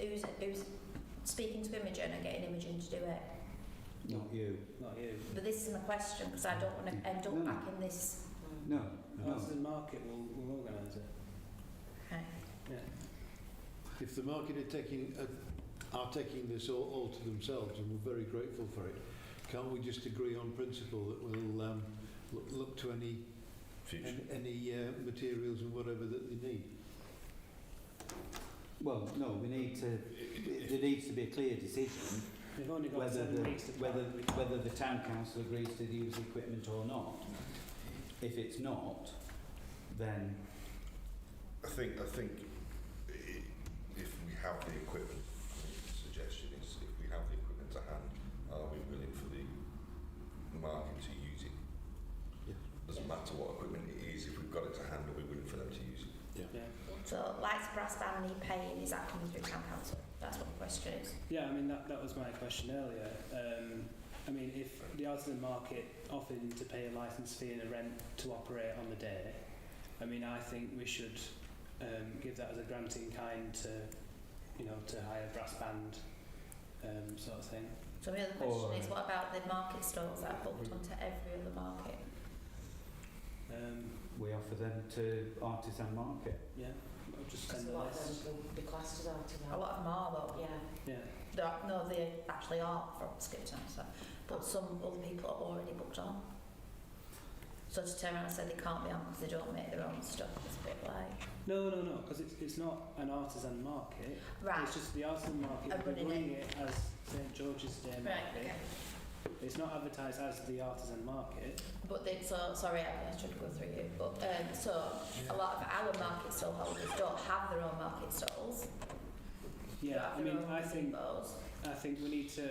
who's who's speaking to Imogen and getting Imogen to do it. Not you. Not you. But this is my question because I don't want to end up Mm. No. back in this. No, Arts no. and Market will, will organise it. Okay. Yeah. If the market are taking, uh, are taking this all, all to themselves, and we're very grateful for it, can't we just agree on principle that we'll um, look, look to any Future. any, any uh, materials and whatever that they need? Well, no, we need to, there needs to be a clear decision They've only got whether seven the, weeks to plan. whether, whether the town council agrees to use the equipment or not. If it's not, then, I think, I think i- if we have the equipment, the suggestion is if we have the equipment to hand, are we willing for the market to use it? Yeah. Doesn't matter what equipment it is, if we've got it to hand, are we willing for them to use it? Yeah. So lights, brass band, need paying. Is that coming through town council? That's what the question is. Yeah, I mean, that, that was my question earlier. Um, I mean, if the artisan market offered to pay a licence fee and a rent to operate on the day, I mean, I think we should um, give that as a grant in kind to, you know, to hire brass band um, sort of thing. So my other question Or- is what about the market stalls that are booked onto every other market? Um, we offer them to artisan market. yeah, I'll just Because send a a lot list. of them will be classed as A artisan. lot of them are though. Yeah. Yeah, They're, not- no, they actually are from Skipton, so, but some other people are already booked on. So to turn around and say they can't be on because they don't make their own stuff, it's a bit like, no, no, no, because it's, it's not an artisan market. It's right, just the artisan market. I'm We're running running it. it as St George's Day market. right, okay. It's not advertised as the artisan market. But then, so, sorry, I I should go through you, but, um, so, a lot of our market stall holders don't have their own market stalls. They Yeah, I have their mean, own I think depots. I think we need to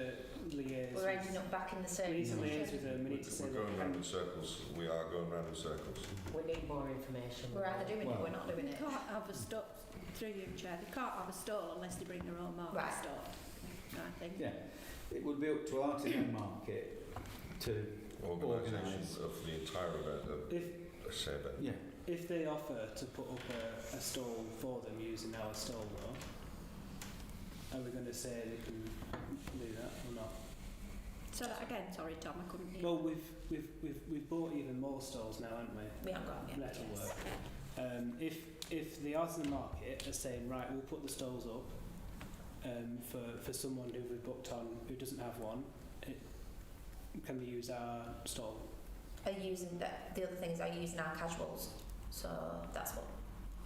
liaise. We're with, ending up back in the we same need to liaise position. with them. We need We're- to say We're going that- round in circles, we are going round in circles. We need more information. We're either doing it or we're Well- not doing They it. can't have a store, through you, Chair, they can't have a store unless they bring their own market Right. store. I think. Yeah, it would be up to artisan market to, Organised. Organisation of uh, the entire event, If a saber. yeah, if they offer to put up a, a stall for them using our stall though, are we going to say they can do that or not? So that again, sorry Tom, I couldn't hear. Well, we've we've we've we've bought even more stalls now, haven't we? We haven't got them yet, That'll yes. work. Um, if if the artisan market are saying right, we'll put the stalls up um, for for someone who we've booked on who doesn't have one, it, can they use our stall? Are using, the, the other things are using our casuals, so that's what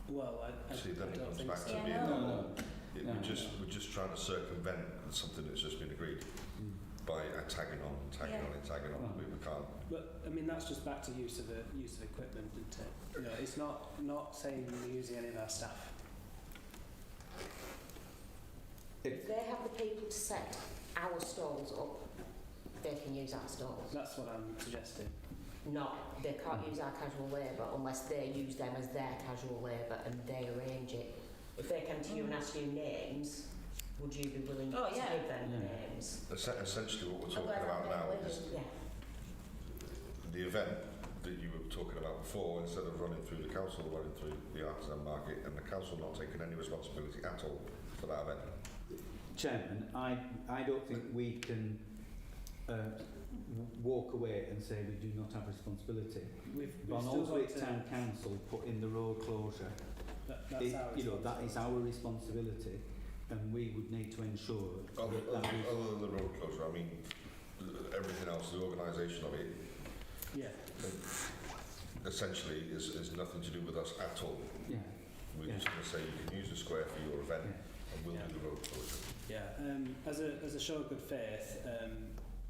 Well, I, I, See, then I it don't comes think back so. to Yeah, being no. normal. It- No, We're just, no. we're just trying to circumvent something that's just been agreed Mm. by uh, tagging on, tagging Yeah. on, and tagging on. We we can't. But I mean, that's just back to use of the use of equipment, isn't it? You know, it's not not saying we're using any of our staff. If they have the people to set our stalls up, they can use our stalls. That's what I'm suggesting. Not, they can't use our casual labour unless they use them as their casual labour and they arrange it. If they come to you and ask you names, would you be willing Oh, to yeah. give them Yeah. names? Es- Essentially, what we're I'm talking glad about I'm now there with is you. Yeah. the event that you were talking about before, instead of running through the council, running through the artisan market, and the council not taking any responsibility at all for that event. Chairman, I, I don't think we can uh, w- walk away and say we do not have responsibility. We've, we've But still also got it's town to. council put in the road closure. That, that's It- our you know, that is responsibility. our responsibility and we would need to ensure Other, other, that that is other than the road closure, I mean, everything else, the organisation of it, Yeah. essentially, is, is nothing to do with us at all. Yeah, We're Yeah. just going to say you can use the square for your event, yeah. and we'll Yeah. do the road closure. Yeah, um, as, a, as a show of good faith, um,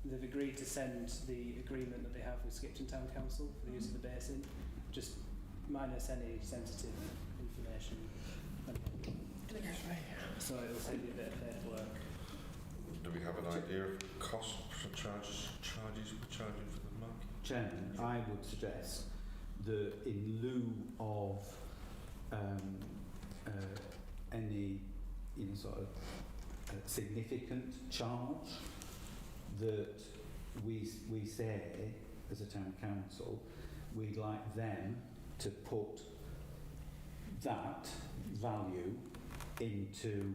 they've agreed to send the agreement that they have with Skipton Town Council for the use of the basin, just minus any sensitive information. So it'll save you a bit of paperwork. Do we have an idea of cost for charges, charges we're charging for the market? Chairman, I would suggest that in lieu of um, uh, any you know, sort of uh, significant charge, that we, we say as a town council, we'd like them to put that value into